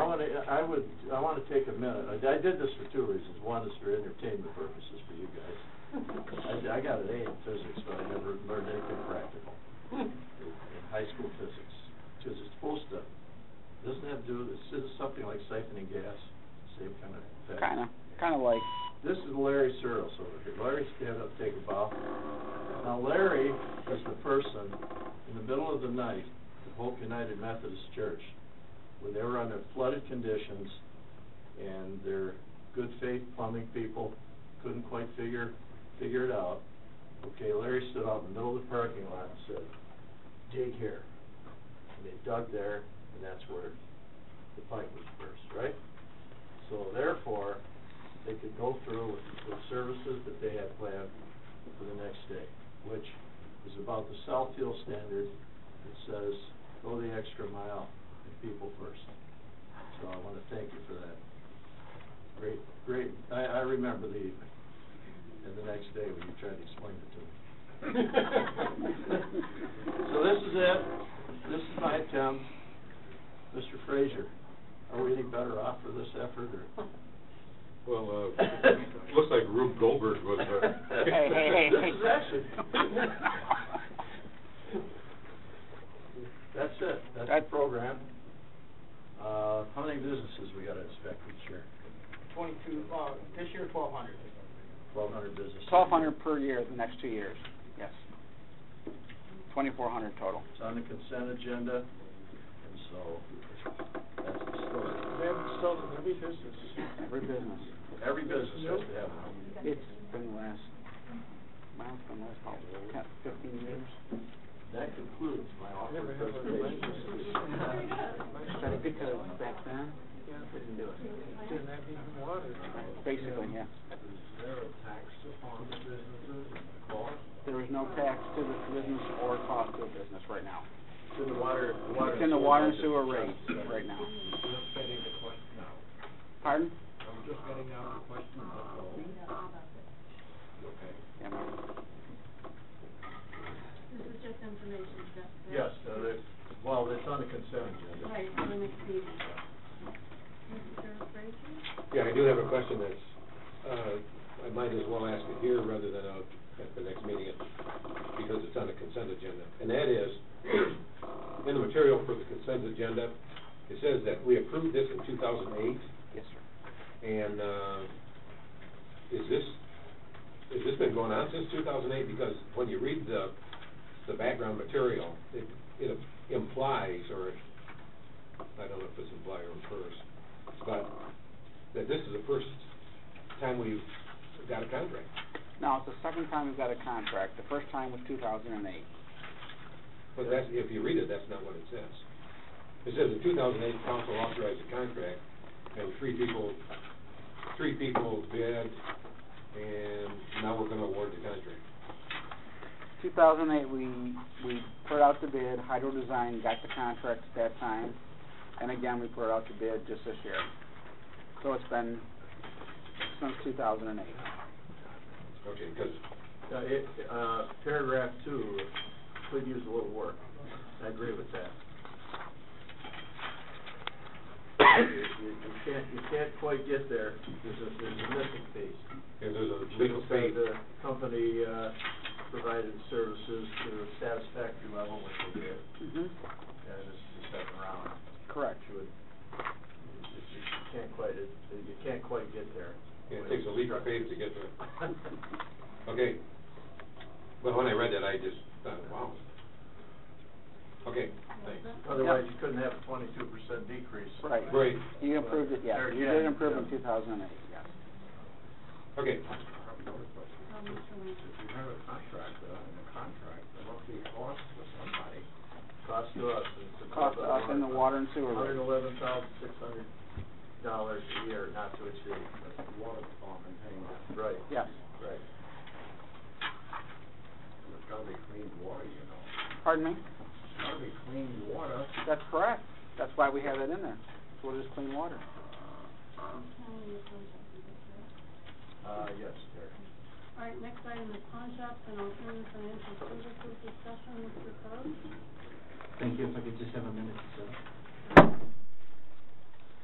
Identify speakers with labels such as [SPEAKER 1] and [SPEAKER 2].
[SPEAKER 1] to, I would, I want to take a minute. I I did this for two reasons. One is for entertainment purposes for you guys. I I got an A in physics, but I never learned anything practical in in high school physics. Because it's supposed to, doesn't have to do, this is something like siphoning gas, same kind of thing.
[SPEAKER 2] Kinda, kinda like,
[SPEAKER 1] This is Larry Searles over here. Larry, stand up, take a bow. Now Larry is the person in the middle of the night at Hope United Methodist Church when they were under flooded conditions and their good faith plumbing people couldn't quite figure, figure it out. Okay, Larry stood out in the middle of the parking lot and said, dig here. And they dug there and that's where the pipe was burst, right? So therefore, they could go through with the services that they had planned for the next day, which is about the South Hill standard that says, go the extra mile and people first. So I want to thank you for that. Great, great, I, I remember the evening and the next day when you tried to explain it to me. So this is it, this is my attempt. Mr. Frazier, are we any better off for this effort or?
[SPEAKER 3] Well, uh, looks like Rube Goldberg was, uh.
[SPEAKER 2] Hey, hey, hey, hey.
[SPEAKER 1] This is action. That's it, that's the
[SPEAKER 2] That-
[SPEAKER 1] program. Uh, how many businesses we gotta inspect this year?
[SPEAKER 4] Twenty-two, uh, this year twelve hundred.
[SPEAKER 1] Twelve hundred businesses.
[SPEAKER 2] twelve hundred per year the next two years, yes. Twenty-four hundred total.
[SPEAKER 1] It's on the consent agenda, and so, that's the story.
[SPEAKER 4] They have sold in every business.
[SPEAKER 2] Every business.
[SPEAKER 1] Every business has to have one.
[SPEAKER 2] It's been the last, mine's been the last probably ten, fifteen years.
[SPEAKER 1] That concludes my offer
[SPEAKER 4] Never have a
[SPEAKER 1] presentation.
[SPEAKER 2] But it- because back then, couldn't do it.
[SPEAKER 4] Didn't have even water.
[SPEAKER 2] Basically, yeah. There is no tax to the business or cost to the business right now.
[SPEAKER 1] It's in the water, the water.
[SPEAKER 2] It's in the water and sewer rates right now. Pardon?
[SPEAKER 4] I'm just getting out of the question.
[SPEAKER 2] Yeah, ma'am.
[SPEAKER 5] This is just information, just. the-
[SPEAKER 1] Yes, uh, they- well, it's on the consent agenda.
[SPEAKER 5] Right, for the next meeting. Mr. Frazier?
[SPEAKER 3] Yeah, I do have a question that's, uh, I might as well ask it here rather than out at the next meeting, because it's on the consent agenda. And that is, in the material for the consent agenda, it says that we approved this in two thousand eight,
[SPEAKER 2] Yes, sir.
[SPEAKER 3] and, uh, is this, has this been going on since two thousand eight? Because when you read the, the background material, it, it implies, or I don't know if it's imply or infers, but that this is the first time we've got a contract.
[SPEAKER 2] Now, it's the second time we've got a contract. The first time was two thousand and eight.
[SPEAKER 3] But that's, if you read it, that's not what it says. It says in two thousand eight, council authorized a contract, and three people, three people bid, and now we're gonna award the contract.
[SPEAKER 2] Two thousand eight, we, we put out the bid, Hydro Design got the contract at that time, and again, we put it out the bid just this year. So it's been since two thousand and eight.
[SPEAKER 3] Okay, because,
[SPEAKER 1] Uh, it, uh, paragraph two, could use a little work. I agree with that. You, you can't, you can't quite get there, there's a, there's a missing piece.
[SPEAKER 3] there's a legal
[SPEAKER 1] Should've said
[SPEAKER 3] fee.
[SPEAKER 1] The company, uh, provided services to a satisfactory level, which they did,
[SPEAKER 2] Mm-hmm.
[SPEAKER 1] and this is the second round.
[SPEAKER 2] Correct.
[SPEAKER 1] You would, you- you you can't quite, it- you can't quite get there.
[SPEAKER 3] It takes a legal fee to get there. Okay. But when I read that, I just thought, wow. Okay, thanks.
[SPEAKER 1] Otherwise, you couldn't have a twenty-two percent decrease.
[SPEAKER 2] Right.
[SPEAKER 3] Great,
[SPEAKER 2] You improved it, yes.
[SPEAKER 1] There
[SPEAKER 2] You
[SPEAKER 1] again,
[SPEAKER 2] did improve in
[SPEAKER 1] yeah.
[SPEAKER 2] two thousand and eight, yes.
[SPEAKER 3] okay.
[SPEAKER 5] Um, Mr. Lindsey.
[SPEAKER 1] uh, Cost to us. it's about
[SPEAKER 2] Cost to us in the water and sewer
[SPEAKER 1] Hundred
[SPEAKER 2] rate.
[SPEAKER 1] eleven thousand six hundred dollars a year not to exceed. Water department paying. Right,
[SPEAKER 2] Yes.
[SPEAKER 1] right.
[SPEAKER 2] Pardon me? That's correct. That's why we have it in there. So we'll just clean water.
[SPEAKER 5] I'm telling you, pawn shop, is that correct?
[SPEAKER 1] Uh, yes, there.
[SPEAKER 5] All right, next item is pawn shops and alternative financial services discussion, Mr. Crowe.
[SPEAKER 6] Thank you. If I could just have a minute, sir.